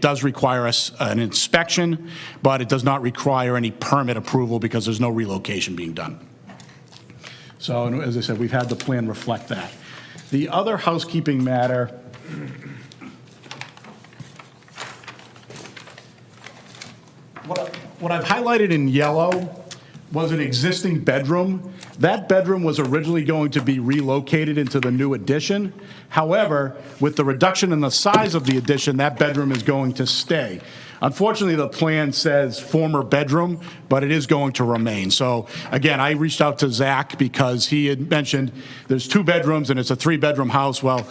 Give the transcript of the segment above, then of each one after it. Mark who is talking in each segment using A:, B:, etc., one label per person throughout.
A: does require us an inspection, but it does not require any permit approval because there's no relocation being done. So, and as I said, we've had the plan reflect that. The other housekeeping matter What I- what I've highlighted in yellow was an existing bedroom. That bedroom was originally going to be relocated into the new addition. However, with the reduction in the size of the addition, that bedroom is going to stay. Unfortunately, the plan says former bedroom, but it is going to remain. So again, I reached out to Zach because he had mentioned there's two bedrooms and it's a three-bedroom house. Well,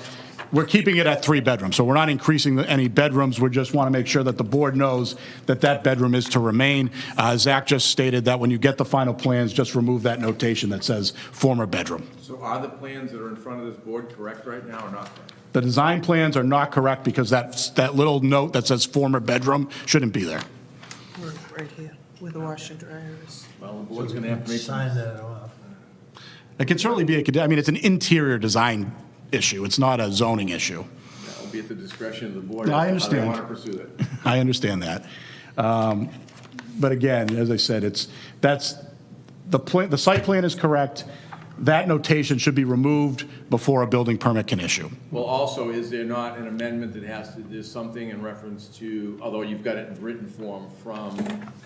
A: we're keeping it at three bedrooms, so we're not increasing the- any bedrooms. We just want to make sure that the board knows that that bedroom is to remain. Uh, Zach just stated that when you get the final plans, just remove that notation that says former bedroom.
B: So are the plans that are in front of this board correct right now or not?
A: The design plans are not correct because that, that little note that says former bedroom shouldn't be there.
C: We're right here with the washer and dryer is.
B: Well, the board's gonna have to make,
D: Sign that off.
A: It can certainly be, a cad- I mean, it's an interior design issue, it's not a zoning issue.
B: that will be at the discretion of the board.
A: No, I
B: as to How
A: understand.
B: they wanna pursue that.
A: I understand that. Um, But again, as I said, it's, that's, the plan, the site plan is correct. That notation should be removed before a building permit can issue.
B: Well, also, is there not an amendment that has to, there's something in reference to, although you've got it in written form from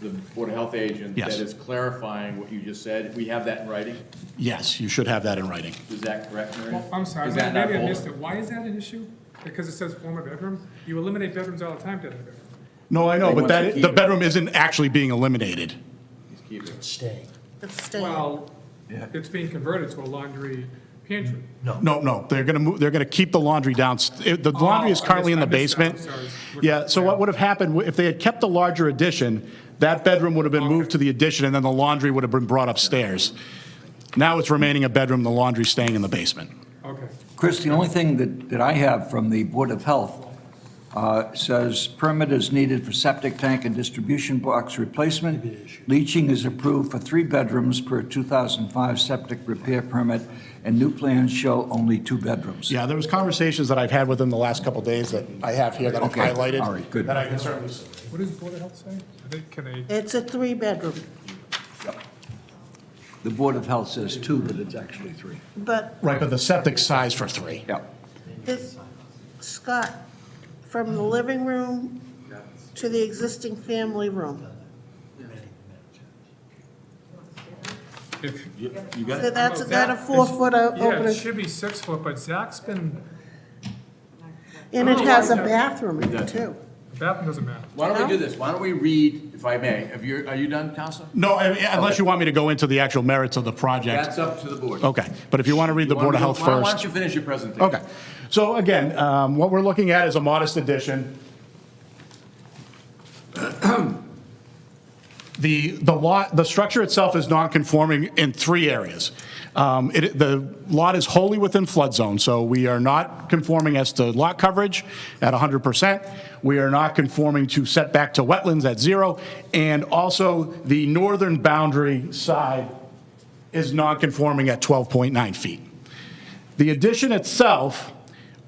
B: the Board of Health agent?
A: Yes.
B: That is clarifying what you just said. We have that in writing.
A: Yes, you should have that in writing.
B: Is that correct, Mary?
E: Well, I'm sorry,
B: Is that
E: maybe
B: in our
E: I
B: folder?
E: missed it. Why is that an issue? Because it says former bedroom? You eliminate bedrooms all the time, doesn't it?
A: No, I know,
B: They
A: but
B: want to
A: that,
B: keep
A: the
B: it.
A: bedroom isn't actually being eliminated.
B: Just keep it.
D: Stay.
C: It's staying.
E: Well, it's being converted to a laundry pantry.
A: No, no, they're going to, they're going to keep the laundry down, the laundry is
E: Oh, I
A: currently in the
E: missed- I missed that. I'm
A: basement.
E: sorry.
A: Yeah, so what would have happened, if they had kept the larger addition, that bedroom would have been moved to the addition, and then the laundry would have been brought upstairs. Now it's remaining a bedroom, the laundry's staying in the basement.
E: Okay.
F: Chris, the only thing that, that I have from the Board of Health uh, says permit is needed for septic tank and distribution box replacement. Leaching is approved for three bedrooms per 2005 septic repair permit, and new plans show only two bedrooms.
A: Yeah, there was conversations that I've had within the last couple days that I have here that I've
F: Okay,
A: highlighted.
F: all right, good.
A: That I can certainly,
E: What does Board of Health say? I think, can they,
C: It's a three-bedroom,
F: The Board of Health says two, but it's actually three.
C: but
A: right, but the septic size for three.
F: Yeah.
C: this, Scott, from the living room to the existing family room.
E: if,
B: You got
C: So
B: it?
C: that's, is that a uh,
E: It's-
C: four-foot o-
E: yeah, it
C: opening?
E: should be six foot, but Zach's been,
C: And it has a bathroom in it, too.
E: the bathroom doesn't matter.
B: Why don't we do this? Why don't we read, if I may, have you, are you done, Counselor?
A: No, I mean, unless you want me to go into the actual merits of the project.
B: That's up to the board.
A: Okay, but if you want to read Oh, the
B: You wanna
A: Board of
B: go-
A: Health
B: why- Why
A: first.
B: don't you finish your presentation?
A: Okay, so again, um, what we're looking at is a modest addition. The, the lot, the structure itself is non-conforming in three areas. Um, it- The lot is wholly within flood zone, so we are not conforming as to lot coverage at 100%. We are not conforming to setback to wetlands at zero, and also the northern boundary side is non-conforming at 12.9 feet. The addition itself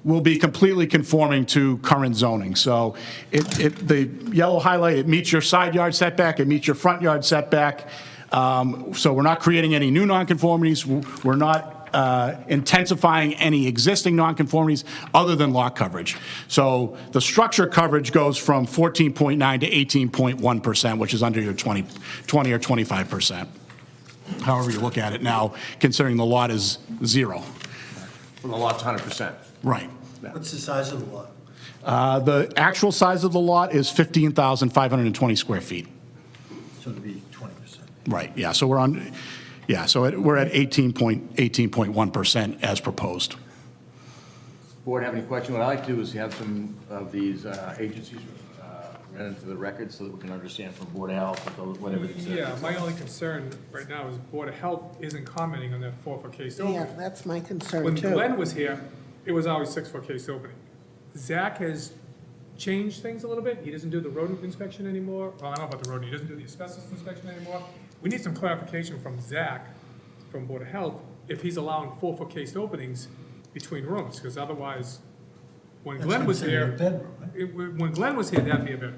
A: will be completely conforming to current zoning. So it, it, the yellow highlight, it meets your side yard setback, it meets your front yard setback. Um, So we're not creating any new nonconformities, we're not uh, intensifying any existing nonconformities other than lot coverage. So the structure coverage goes from 14.9 to 18.1%, which is under your 20, 20 or 25%, however you look at it now, considering the lot is zero.
B: Well, the lot's hundred percent.
A: Right.
D: What's the size of the lot?
A: Uh, The actual size of the lot is 15,520 square feet.
D: So it'd be twenty percent.
A: Right, yeah, so we're on, yeah, so it- we're at 18.18.1% as proposed.
B: Board have any questions? What I'd like to do is have some of these uh, agencies uh, run into the record so that we can understand from Board of Health what those- what everything says.
E: Yeah, my only concern right now is Board of Health isn't commenting on that four foot case
C: Yeah,
E: opening.
C: that's my concern,
E: When Glenn
C: too.
E: was here, it was always six foot case opening. Zach has changed things a little bit. He doesn't do the rodent inspection anymore. Well, I don't know about the rodent, he doesn't do the asbestos inspection anymore. We need some clarification from Zach, from Board of Health, if he's allowing four foot case openings between rooms, because otherwise When
D: That's
E: Glenn was
D: considered a
E: here,
D: bedroom, right?
E: it- when Glenn was here, that'd be a bedroom.